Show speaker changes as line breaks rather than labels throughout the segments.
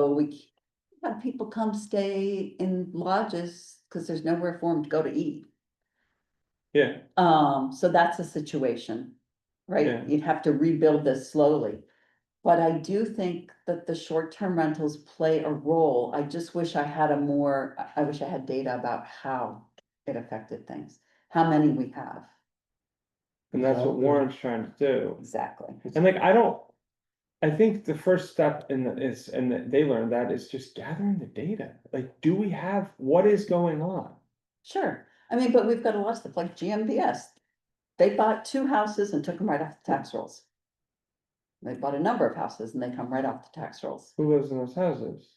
we c- have people come stay in lodges, cause there's nowhere for them to go to eat.
Yeah,
Um, so that's a situation,
Yeah.
right? You'd have to rebuild this slowly. But I do think that the short-term rentals play a role. I just wish I had a more, I- I wish I had data about how it affected things, how many we have,
and that's what
Exactly.
Warren's trying to do.
exactly.
And like, I don't, I think the first step in the, is, and that they learned that is just gathering the data. Like, do we have, what is going on?
Sure, I mean, but we've got a lot of stuff like GMBS. They bought two houses and took them right off the tax rolls. They bought a number of houses and they come right off the tax rolls.
Who lives in those houses?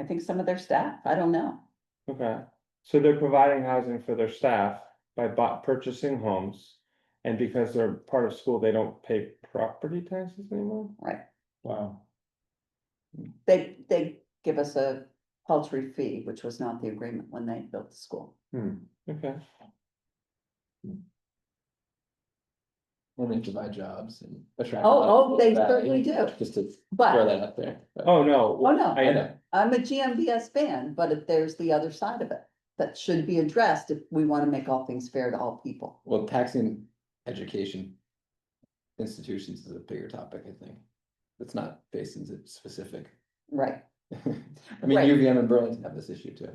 I think some of their staff, I don't know.
Okay, so they're providing housing for their staff by bu- purchasing homes. And because they're part of school, they don't pay property taxes anymore?
Wow.
They, they give us a paltry fee, which was not the agreement when they built the school.
Hmm.
Okay,
Well, they provide jobs and attract. a
Oh,
lot of
oh,
people
they
to that,
certainly
you know,
do.
Just to throw
But,
that out there. but-
oh, no.
oh no,
I
I,
know,
I'm a GMBS fan, but if there's the other side of it that should be addressed if we want to make all things fair to all people.
well, taxing education. Institutions is a bigger topic, I think. It's not Basin's it's specific.
Right,
I mean,
Right.
UVM and Burlington have this issue too.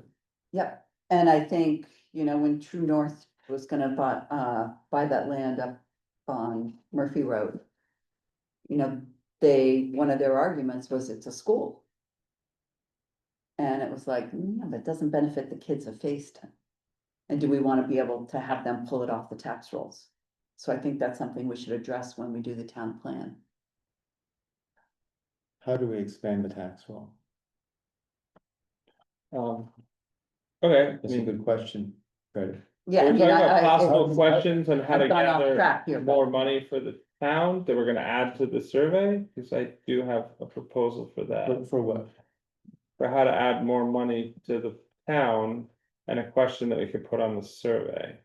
yep. And I think, you know, when True North was gonna buy, uh, buy that land up on Murphy Road. You know, they, one of their arguments was it's a school. And it was like, yeah, but it doesn't benefit the kids of Facein. And do we wanna be able to have them pull it off the tax rolls? So I think that's something we should address when we do the town plan.
How do we expand the tax roll?
um. Okay, I
That's a
mean,
good question, Right.
Yeah. I
we're
mean,
talking
I-
about
I- I-
possible questions on how to
I've gone off
gather
track here, but-
more money for the town that we're gonna add to the survey. Cause I do have a proposal for that,
But for what?
for how to add more money to the town. And a question that we could put on the survey.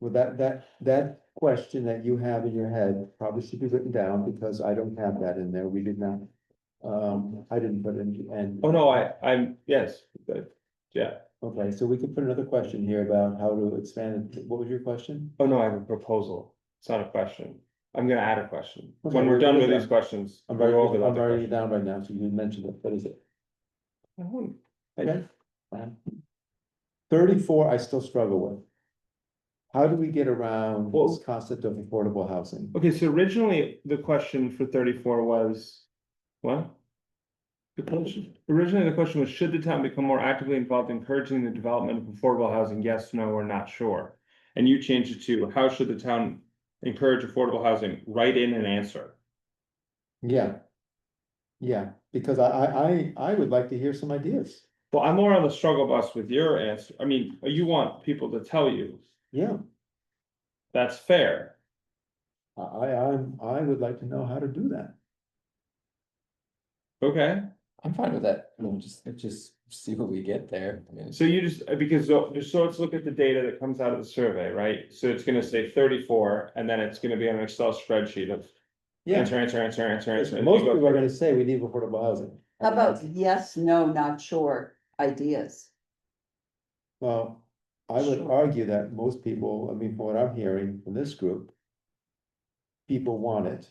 Well, that, that, that question that you have in your head probably should be written down because I don't have that in there. We did not. Um, I didn't put it in, and.
Oh, no, I, I'm, yes, but- yeah.
Okay, so we could put another question here about how to expand. it. What was your question?
Oh, no, I have a proposal. It's not a question. I'm gonna add a question.
Okay,
When we're
we're
done with
good.
these questions.
I'm
we'll
writing,
go over the
I'm
other
writing it
question.
down right now, so you mentioned it. What is it?
I wouldn't- I-
Okay. Thirty-four, I still struggle with. How do we get around
Well-
this concept of affordable housing?
Okay, so originally, the question for thirty-four was, what? The question, originally, the question was, should the town become more actively involved encouraging the development of affordable housing? Yes, no, or not sure. And you changed it to, how should the town encourage affordable housing? Write in an answer.
Yeah. Yeah, because I, I, I, I would like to hear some ideas.
Well, I'm more on the struggle bus with your answer. I mean, you want people to tell you,
Yeah,
that's fair.
I, I, I'm- I would like to know how to do that.
Okay,
I'm fine with that. I mean, just, just see what we get there. I mean,
so you just, uh, because, so so let's look at the data that comes out of the survey, right? So it's gonna say thirty-four, and then it's gonna be on an Excel spreadsheet of
Yeah,
answer, answer, answer, answer, answer.
most people are gonna say we need affordable housing.
How about yes, no, not sure ideas?
Well, I would
Sure.
argue that most people, I mean, from what I'm hearing from this group. People want it.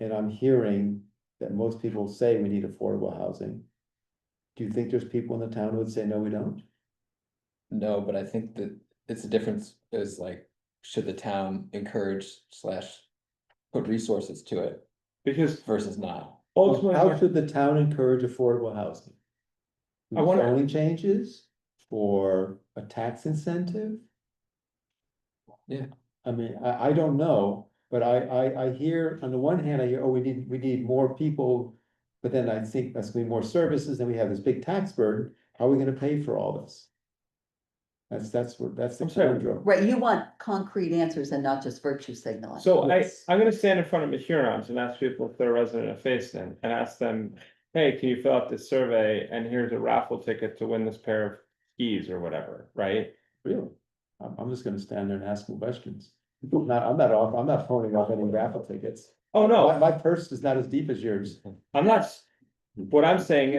And I'm hearing that most people say we need affordable housing. Do you think there's people in the town who would say, no, we don't?
No, but I think that it's a difference is like, should the town encourage slash put resources to it
Because
versus not?
Well, How
ultimately,
should the town encourage affordable housing?
I
Through
wanna-
zoning changes or a tax incentive?
Yeah.
I mean, I, I don't know, but I, I, I hear, on the one hand, I hear, oh, we need, we need more people. But then I think that's gonna be more services, and we have this big tax burden, how are we gonna pay for all this? That's, that's what, that's the
I'm sorry.
conundrum.
Right, you want concrete answers and not just virtue signaling.
so I,
Yes.
I'm gonna stand in front of the Hurons and ask people if they're a resident of Facein, and ask them, hey, can you fill out this survey, and here's a raffle ticket to win this pair of skis or whatever, right?
Really? I'm, I'm just gonna stand there and ask them questions. Not, I'm not off, I'm not phoning off any raffle tickets.
Oh,
My,
no,
my purse is not as deep as yours.
I'm not, s- what I'm saying